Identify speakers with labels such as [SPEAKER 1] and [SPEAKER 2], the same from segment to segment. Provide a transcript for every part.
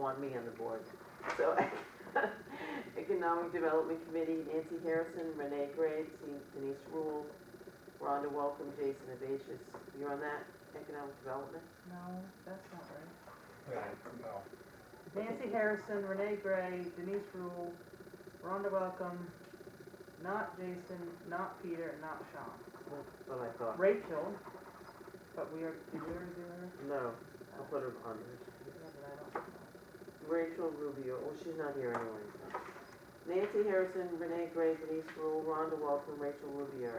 [SPEAKER 1] want me on the board. So Economic Development Committee, Nancy Harrison, Renee Graves, Denise Rule, Rhonda Welcome, Jason Abatius. You're on that, Economic Development?
[SPEAKER 2] No, that's not right.
[SPEAKER 3] No.
[SPEAKER 2] Nancy Harrison, Renee Gray, Denise Rule, Rhonda Welcome, not Jason, not Peter, and not Sean.
[SPEAKER 1] That's what I thought.
[SPEAKER 2] Rachel, but we are, did we already do her? Uh,
[SPEAKER 1] No, I'll put her on there.
[SPEAKER 2] Yeah, but I don't know.
[SPEAKER 1] Rachel Rubio, well, she's not here anyway. so. Nancy Harrison, Renee Gray, Denise Rule, Rhonda Welcome, Rachel Rubio,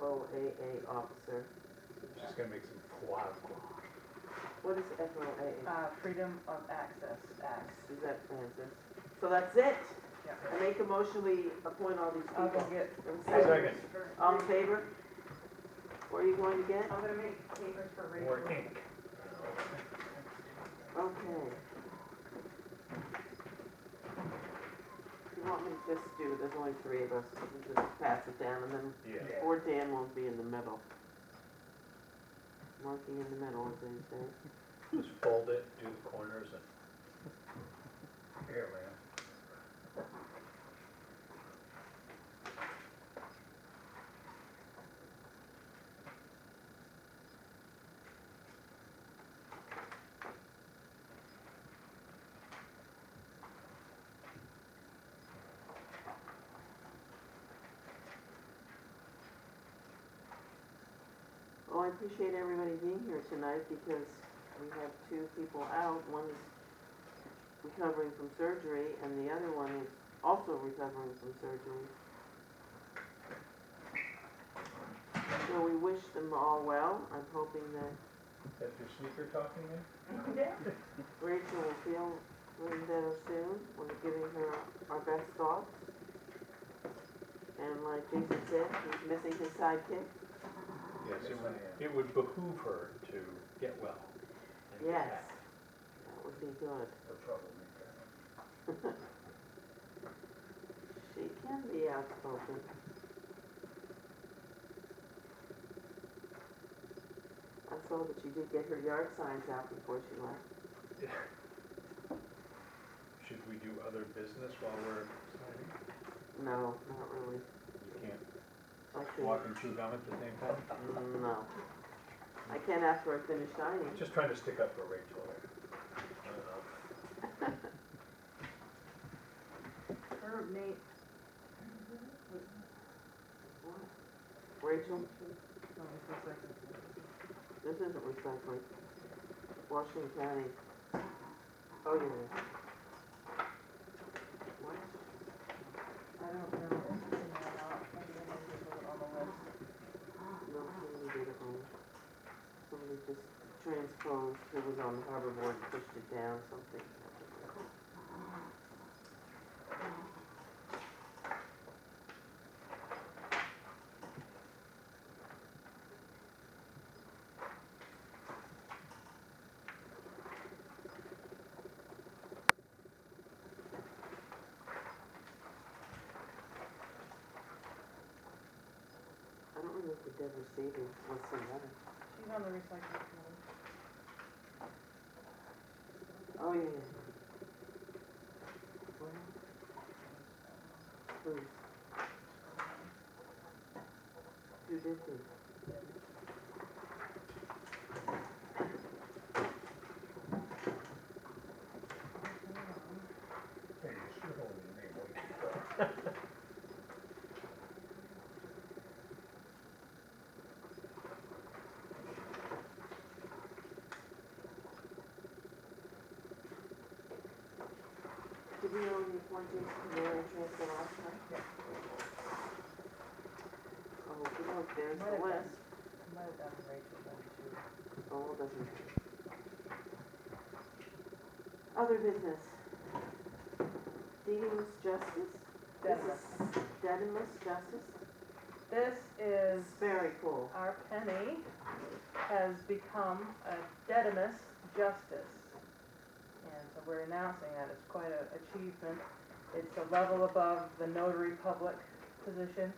[SPEAKER 1] FOAA Officer.
[SPEAKER 3] She's gonna make some guac.
[SPEAKER 1] What is FOAA?
[SPEAKER 2] Uh, Freedom of Access Act.
[SPEAKER 1] Is that Francis? So that's it.
[SPEAKER 2] Yeah.
[SPEAKER 1] I make a motion, we appoint all these
[SPEAKER 2] I'll go
[SPEAKER 1] people.
[SPEAKER 2] get, uh,
[SPEAKER 1] Have a
[SPEAKER 3] Second.
[SPEAKER 1] All in favor? What are you going to get?
[SPEAKER 4] I'm gonna make papers for Rachel.
[SPEAKER 3] Or ink.
[SPEAKER 1] Okay. You want me to just do, there's only three of us, we can just pass it down and then,
[SPEAKER 3] Yeah.
[SPEAKER 1] or Dan won't be in the middle. Marking in the middle, as they say.
[SPEAKER 3] Just fold it, do the corners and. Here, man.
[SPEAKER 1] Well, I appreciate everybody being here tonight because we have two people out. One is recovering from surgery and the other one is also recovering from surgery. So we wish them all well. I'm hoping that
[SPEAKER 3] That's your sneaker talking there?
[SPEAKER 1] Rachel will feel a little better soon. We're giving her our best thoughts. And like Jason said, he's missing his sidekick.
[SPEAKER 3] Yes, it
[SPEAKER 5] Yes,
[SPEAKER 3] would,
[SPEAKER 5] I
[SPEAKER 3] it would behoove her to get well. and get
[SPEAKER 1] Yes,
[SPEAKER 3] back.
[SPEAKER 1] that would be good.
[SPEAKER 5] the troublemaker.
[SPEAKER 1] She can be outspoken. I saw that she did get her yard signs out before she left.
[SPEAKER 3] Should we do other business while we're signing?
[SPEAKER 1] No, not really.
[SPEAKER 3] You can't
[SPEAKER 1] I
[SPEAKER 3] walk
[SPEAKER 1] can
[SPEAKER 3] and chew gum at the same time?
[SPEAKER 1] no. I can't after I finish dining.
[SPEAKER 3] Just trying to stick up for Rachel there. I don't know.
[SPEAKER 2] her, Nate,
[SPEAKER 1] Rachel,
[SPEAKER 2] no, it's just like this.
[SPEAKER 1] this isn't recycling. Washington County. Oh, yeah. What?
[SPEAKER 2] I don't know if it's in there or not, maybe I need to put it on the list.
[SPEAKER 1] No, somebody did it wrong. Somebody just transposed, it was on the harbor board, pushed it down, something. I don't remember if Deborah Savings was some letter.
[SPEAKER 2] She's on the recycling committee.
[SPEAKER 1] Oh, yeah, yeah. Well, Who's? Who did this?
[SPEAKER 5] Hey, you should only name one.
[SPEAKER 1] Did we only appoint Jason to mayor and transfer last time? Oh, good, luck, there's the
[SPEAKER 2] Might have been.
[SPEAKER 1] list.
[SPEAKER 2] I might have done Rachel then too.
[SPEAKER 1] Oh, it doesn't. Other business. Deems Justice? This is Dedimus Justice?
[SPEAKER 2] This is,
[SPEAKER 1] It's very cool.
[SPEAKER 2] our penny has become a dedimus justice. And so we're announcing that it's quite an achievement. It's a level above the notary public position.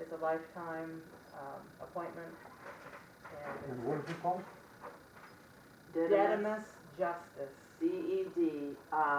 [SPEAKER 2] It's a lifetime um, appointment. And
[SPEAKER 5] what is it called?
[SPEAKER 2] it's dedimus justice.
[SPEAKER 1] D E D I